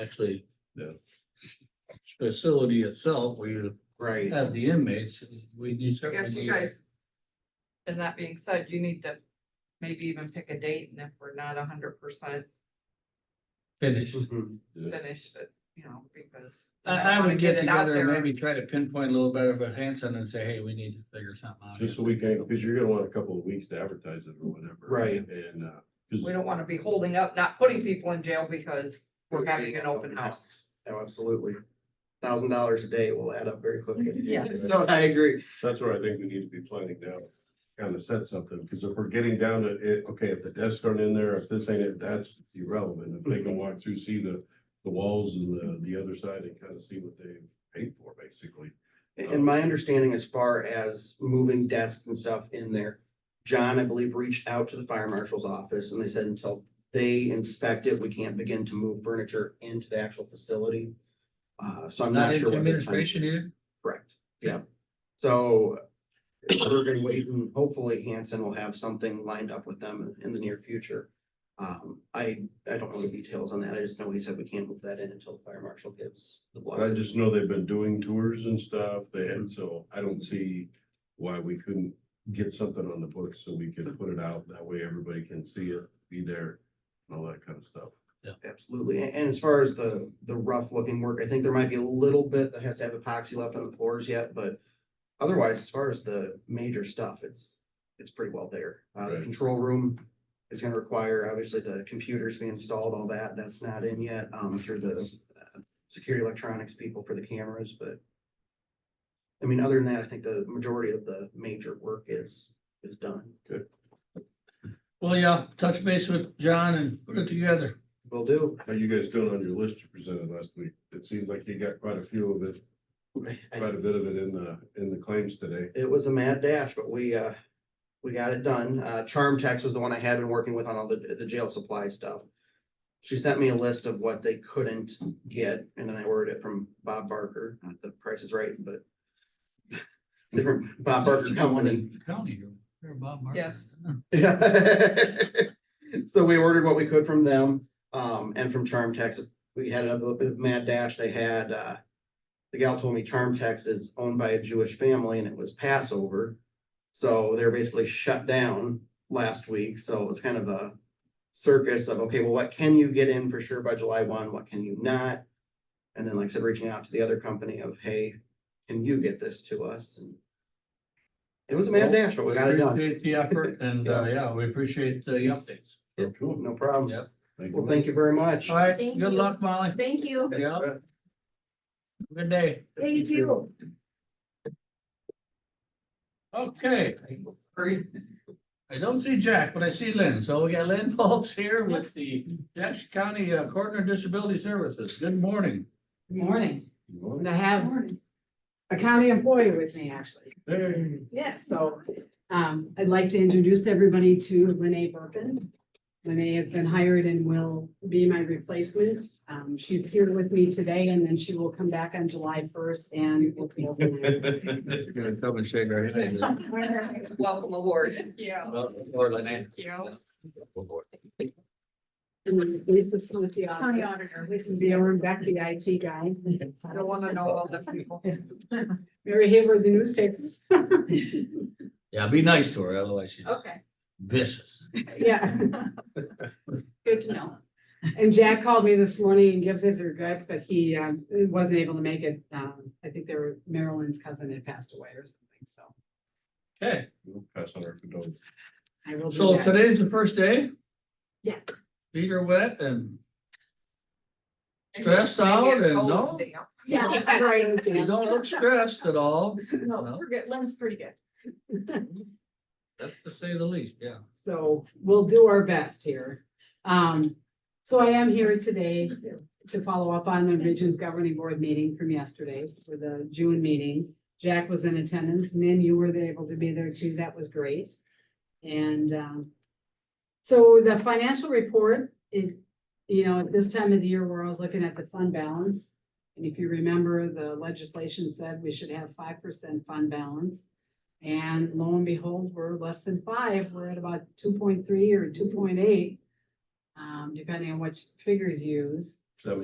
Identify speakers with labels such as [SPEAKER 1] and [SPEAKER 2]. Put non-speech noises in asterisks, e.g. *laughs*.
[SPEAKER 1] actually.
[SPEAKER 2] Yeah.
[SPEAKER 1] Facility itself, where you
[SPEAKER 3] Uh,
[SPEAKER 4] Right.
[SPEAKER 1] have the inmates, we need
[SPEAKER 3] I guess
[SPEAKER 1] certainly.
[SPEAKER 3] you guys. And that being said, you need to maybe even pick a date and if we're not hundred percent
[SPEAKER 1] Finished.
[SPEAKER 4] Mm-hmm.
[SPEAKER 3] finished, it, you know, because.
[SPEAKER 1] I, I
[SPEAKER 3] wanna
[SPEAKER 1] would get
[SPEAKER 3] it out
[SPEAKER 1] together and
[SPEAKER 3] there.
[SPEAKER 1] maybe try to pinpoint a little bit of a Hanson and say, hey, we need to figure something out.
[SPEAKER 2] Just so
[SPEAKER 1] here."
[SPEAKER 2] we can, because you're gonna want a couple of weeks to advertise it or whatever.
[SPEAKER 4] Right.
[SPEAKER 2] And, uh,
[SPEAKER 3] We
[SPEAKER 2] 'cause
[SPEAKER 3] don't wanna be holding up, not putting people in jail because we're having an open house.
[SPEAKER 4] Oh, absolutely. Thousand dollars a day will add up very quickly.
[SPEAKER 3] *laughs* Yeah.
[SPEAKER 4] *laughs* So I agree.
[SPEAKER 2] that's where I think we need to be planning now, kind of set something, because if we're getting down to it, okay, if the desks aren't in there, if this ain't it, that's irrelevant. If they can walk through, see the, the walls and the, the other side and kind of see what they paid for, basically.
[SPEAKER 4] And
[SPEAKER 3] Oh.
[SPEAKER 4] my understanding as far as moving desks and stuff in there, John, I believe, reached out to the fire marshal's office and they said until they inspect it, we can't begin to move furniture into the actual facility. Uh, so I'm
[SPEAKER 1] Not
[SPEAKER 4] not
[SPEAKER 1] in
[SPEAKER 4] sure. what his time-
[SPEAKER 1] administration either?
[SPEAKER 4] Correct, yeah. So we're gonna wait and hopefully Hanson will have something lined up with them in the near future. Um, I, I don't know the details on that. I just know he said we can't move that in until the fire marshal gives the
[SPEAKER 2] But I
[SPEAKER 4] blessing.
[SPEAKER 2] just know they've been doing tours and stuff, they had, so I don't see why we couldn't get something on the books so we could put it out, that way everybody can see it, be there, and all that kind of stuff.
[SPEAKER 4] Absolutely. And, and as far as the, the rough looking work, I think there might be a little bit that has to have epoxy left on the floors yet, but otherwise, as far as the major stuff, it's, it's pretty well there. Uh, the
[SPEAKER 2] Right.
[SPEAKER 4] control room is gonna require, obviously, the computers be installed, all that. That's not in yet, um, through the uh, security electronics people for the cameras, but I mean, other than that, I think the majority of the major work is, is done. Good.
[SPEAKER 1] Well, yeah, touch base with John and put it together.
[SPEAKER 4] Will do.
[SPEAKER 2] How you guys doing on your list you presented last week? It seems like you got quite a few of it, quite a bit of it in the, in the claims today.
[SPEAKER 4] it was a mad dash, but we, uh, we got it done. Uh, Charm Text was the one I had been working with on all the, the jail supply stuff. She sent me a list of what they couldn't get, and then I ordered it from Bob Barker, not the price is right, but *laughs* different Bob Barker company.
[SPEAKER 1] County, you're- you're Bob Barker.
[SPEAKER 3] Yes.
[SPEAKER 4] *laughs* Yeah. So we ordered what we could from them, um, and from Charm Tex. We had a little bit of mad dash. They had, uh, the gal told me Charm Tex is owned by a Jewish family and it was Passover. So they're basically shut down last week. So it was kind of a circus of, okay, well, what can you get in for sure by July one? What can you not? And then like I said, reaching out to the other company of, hey, can you get this to us? And it was a mad dash, but we got it done.
[SPEAKER 1] Appreciate the effort
[SPEAKER 4] *laughs*
[SPEAKER 1] and, uh, yeah, we appreciate the updates.
[SPEAKER 4] Yep.
[SPEAKER 2] Cool.
[SPEAKER 4] No problem.
[SPEAKER 1] Yeah.
[SPEAKER 4] Well, thank you very much.
[SPEAKER 1] All right,
[SPEAKER 5] Thank
[SPEAKER 1] good
[SPEAKER 5] you.
[SPEAKER 1] luck, Molly.
[SPEAKER 5] Thank you.
[SPEAKER 1] Yeah. Good day.
[SPEAKER 5] Thank you.
[SPEAKER 1] Okay. I don't see Jack, but I see Lynn. So we got Lynn *laughs* Phillips here with the Jackson County uh, Coordinator of Disability Services. Good morning.
[SPEAKER 6] Good morning.
[SPEAKER 2] you.
[SPEAKER 6] And I have a county employee with me, actually.
[SPEAKER 2] Hey.
[SPEAKER 6] Yeah, so um, I'd like to introduce everybody to Lynne Burkin. Lynne has been hired and will be my replacement. Um, she's here with me today and then she will come back on July first and will be.
[SPEAKER 1] You're gonna come and shake our hand.
[SPEAKER 3] Welcome aboard.
[SPEAKER 5] Yeah.
[SPEAKER 1] *laughs* Or Lynn.
[SPEAKER 6] And then Lisa Smith, the
[SPEAKER 5] County
[SPEAKER 6] auditor.
[SPEAKER 5] auditor.
[SPEAKER 6] This is the owner, back the IT guy.
[SPEAKER 3] I don't wanna know all the people.
[SPEAKER 6] Mary Hayward, the newspapers.
[SPEAKER 1] Yeah, be nice to her, otherwise she's
[SPEAKER 5] Okay,
[SPEAKER 1] vicious.
[SPEAKER 6] Yeah.
[SPEAKER 5] *laughs* good to know.
[SPEAKER 6] And Jack called me this morning and gives his regrets, but he um, wasn't able to make it. Um, I think they were Marilyn's cousin had passed away or something, so
[SPEAKER 1] Okay,
[SPEAKER 2] *laughs* We'll Pass on our condolences.
[SPEAKER 6] I will do
[SPEAKER 1] so
[SPEAKER 6] *laughs* that.
[SPEAKER 1] today's the first day?
[SPEAKER 5] Yeah.
[SPEAKER 1] Feet are wet and stressed out
[SPEAKER 3] Maybe a
[SPEAKER 1] and no,
[SPEAKER 3] cold stamp.
[SPEAKER 6] Yeah, I write those
[SPEAKER 1] you
[SPEAKER 6] down.
[SPEAKER 1] don't
[SPEAKER 5] *laughs*
[SPEAKER 1] look stressed at all.
[SPEAKER 5] No, we're good. Lynn's pretty good.
[SPEAKER 1] That's to say the least, yeah.
[SPEAKER 6] So we'll do our best here. Um, so I am here today to follow up on the Regions Governing Board meeting from yesterday for the June meeting. Jack was in attendance. Nan, you were able to be there too. That was great. And, um, so the financial report, it, you know, at this time of the year, we're always looking at the fund balance. And if you remember, the legislation said we should have five percent fund balance. And lo and behold, we're less than five, we're at about two point three or two point eight. Um, depending on which figures you use.